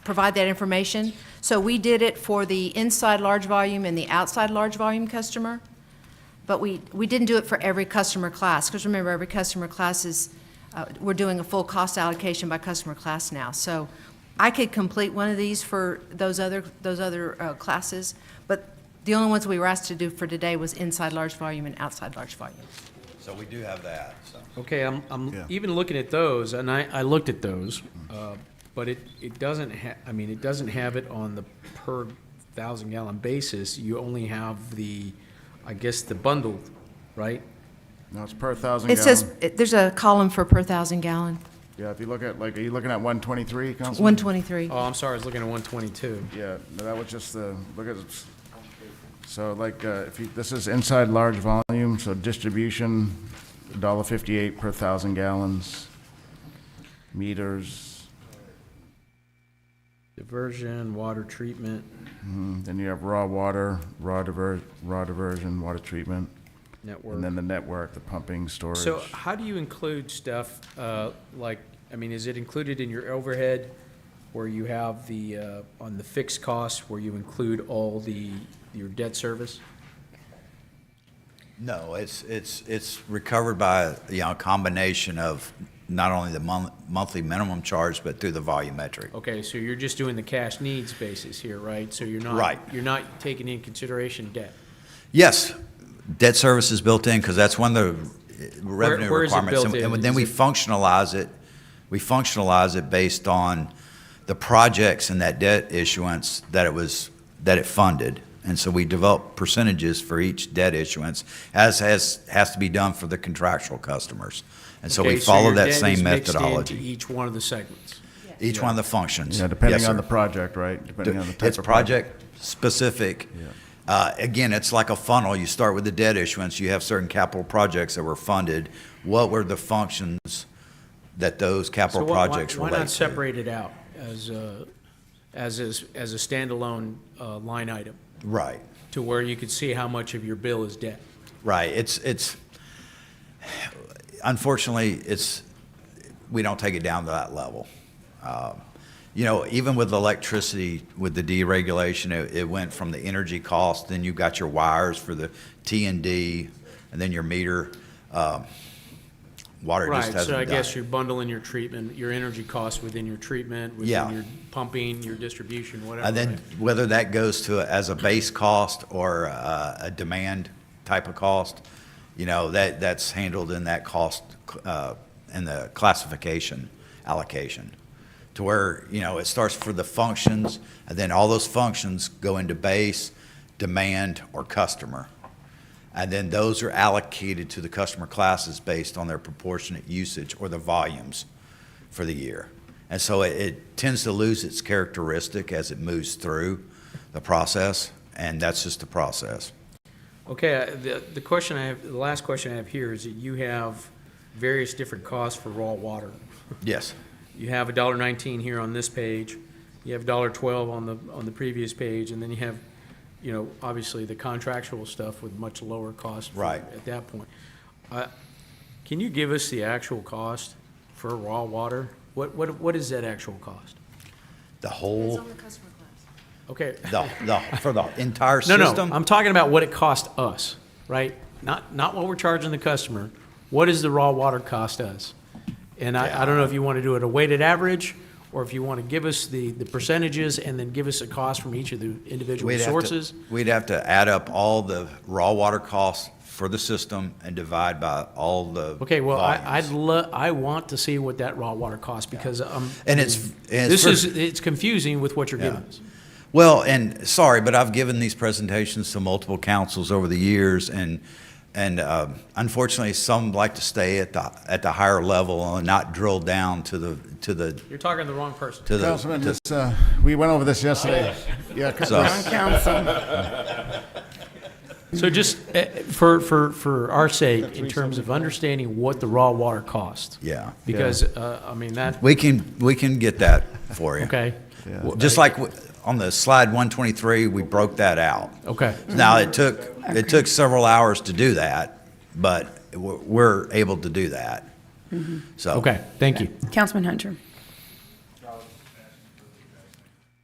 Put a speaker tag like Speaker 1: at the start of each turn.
Speaker 1: provide that information. So we did it for the inside large volume and the outside large volume customer, but we, we didn't do it for every customer class, because remember, every customer class is, uh, we're doing a full cost allocation by customer class now. So I could complete one of these for those other, those other uh, classes, but the only ones we were asked to do for today was inside large volume and outside large volume.
Speaker 2: So we do have that, so.
Speaker 3: Okay, I'm,
Speaker 4: Yeah.
Speaker 3: I'm even looking at those, and I, I looked at those, uh, but it, it doesn't ha, I mean, it doesn't have it on the per thousand gallon basis. You only have the, I guess, the bundled, right?
Speaker 4: No, it's per thousand
Speaker 1: It says,
Speaker 4: gallon.
Speaker 1: it- there's a column for per thousand gallon,
Speaker 4: Yeah, if you look at, like, are you looking at one twenty-three, Councilman?
Speaker 1: 123.
Speaker 3: Oh, I'm sorry, I was looking at one twenty-two.
Speaker 4: Yeah, no, that was just the, look at, so like, uh, if you, this is inside large volume, so distribution, dollar fifty-eight per thousand gallons. Meters,
Speaker 3: Diversion, water treatment,
Speaker 4: mm, then you have raw water, raw diver, raw diversion, water treatment, and
Speaker 3: network.
Speaker 4: then the network, the pumping, storage.
Speaker 3: So how do you include stuff, uh, like, I mean, is it included in your overhead? Where you have the, uh, on the fixed costs, where you include all the, your debt service?
Speaker 2: No, it's, it's, it's recovered by, you know, a combination of not only the mon- monthly minimum charge, but through the volumetric.
Speaker 3: Okay, so you're just doing the cash needs basis here, right? So you're not.
Speaker 2: Right.
Speaker 3: You're not taking in consideration debt.
Speaker 2: Yes, debt service is built in, because that's one of the eh, revenue
Speaker 3: where is it
Speaker 2: requirements.
Speaker 3: built
Speaker 2: And
Speaker 3: in?
Speaker 2: then we
Speaker 3: Is it-
Speaker 2: functionalize it, we functionalize it based on the projects and that debt issuance that it was, that it funded. And so we develop percentages for each debt issuance, as has, has to be done for the contractual customers. And so we
Speaker 3: Okay,
Speaker 2: follow
Speaker 3: your
Speaker 2: that
Speaker 3: debt
Speaker 2: same
Speaker 3: is mixed
Speaker 2: methodology.
Speaker 3: into Each one of the segments.
Speaker 2: Each one of the functions.
Speaker 4: Yeah, depending
Speaker 2: Yes,
Speaker 4: on the
Speaker 2: sir.
Speaker 4: project, right? Depending on the type
Speaker 2: It's
Speaker 4: of project.
Speaker 2: project-specific.
Speaker 4: Yeah.
Speaker 2: Uh, Again, it's like a funnel. You start with the debt issuance, you have certain capital projects that were funded. What were the functions that those
Speaker 3: So
Speaker 2: capital
Speaker 3: why- why-
Speaker 2: projects
Speaker 3: Why
Speaker 2: relate
Speaker 3: not
Speaker 2: to?
Speaker 3: separate it out as a, as is, as a standalone, uh, line item
Speaker 2: Right,
Speaker 3: to where you could see how much of your bill is debt?
Speaker 2: right. It's, it's, unfortunately, it's, we don't take it down to that level. Um, You know, even with electricity, with the deregulation, it, it went from the energy cost, then you've got your wires for the T and D, and then your meter. um, Water just
Speaker 3: Right,
Speaker 2: hasn't
Speaker 3: so I
Speaker 2: done
Speaker 3: guess
Speaker 2: it.
Speaker 3: you're bundling your treatment, your energy costs within your treatment,
Speaker 2: Yeah.
Speaker 3: within your pumping, your distribution, whatever.
Speaker 2: And then
Speaker 3: right?
Speaker 2: whether that goes to, a- as a base cost or a, a demand type of cost, you know, that, that's handled in that cost, uh, in the classification allocation. To where, you know, it starts for the functions, and then all those functions go into base, demand, or customer. And then those are allocated to the customer classes based on their proportionate usage or the volumes for the year. And so it, it tends to lose its characteristic as it moves through the process, and that's just the process.
Speaker 3: Okay, uh, the, the question I have, the last question I have here is that you have various different costs for raw water.
Speaker 2: Yes.
Speaker 3: You have a dollar nineteen here on this page, you have dollar twelve on the, on the previous page, and then you have, you know, obviously the contractual stuff with much lower cost. for-
Speaker 2: Right.
Speaker 3: At that point. Uh, Can you give us the actual cost for raw water? What, what, what is that actual cost?
Speaker 2: The whole,
Speaker 1: customer class.
Speaker 3: Okay.
Speaker 2: the, the, for the entire
Speaker 3: No, no,
Speaker 2: system?
Speaker 3: I'm talking about what it cost us, right? Not, not what we're charging the customer. What does the raw water cost us? And I, I don't know if you want to do it a weighted average, or if you want to give us the, the percentages and then give us a cost from each of the individual
Speaker 2: We'd have to-
Speaker 3: sources.
Speaker 2: We'd have to add up all the raw water costs for the system and divide by all the
Speaker 3: Okay, well, I, I'd
Speaker 2: volumes.
Speaker 3: lo, I want to see what that raw water costs, because, um.
Speaker 2: And it's- and it's
Speaker 3: This is,
Speaker 2: first-
Speaker 3: it's confusing with what you're giving us.
Speaker 2: Well, and sorry, but I've given these presentations to multiple councils over the years, and and uh, unfortunately, some like to stay at the at the higher level and not drill down to the to the
Speaker 3: You're talking to the wrong person.
Speaker 2: to the.
Speaker 4: Councilman,
Speaker 2: to-
Speaker 4: this, uh, we went over this yesterday. Yeah,
Speaker 2: So-
Speaker 4: Councilman.
Speaker 3: So just, uh, for, for, for our sake, in terms of understanding what the raw water costs.
Speaker 2: yeah,
Speaker 3: Because, uh, I mean, that,
Speaker 2: we can we can get that for you.
Speaker 3: okay,
Speaker 2: Well, Just like w- on the slide 123, we broke that out.
Speaker 3: okay.
Speaker 2: Now it took it took several hours to do that, but we're- we're able to do that. So
Speaker 3: Mm-hmm. Okay, thank you.
Speaker 5: Councilman Hunter.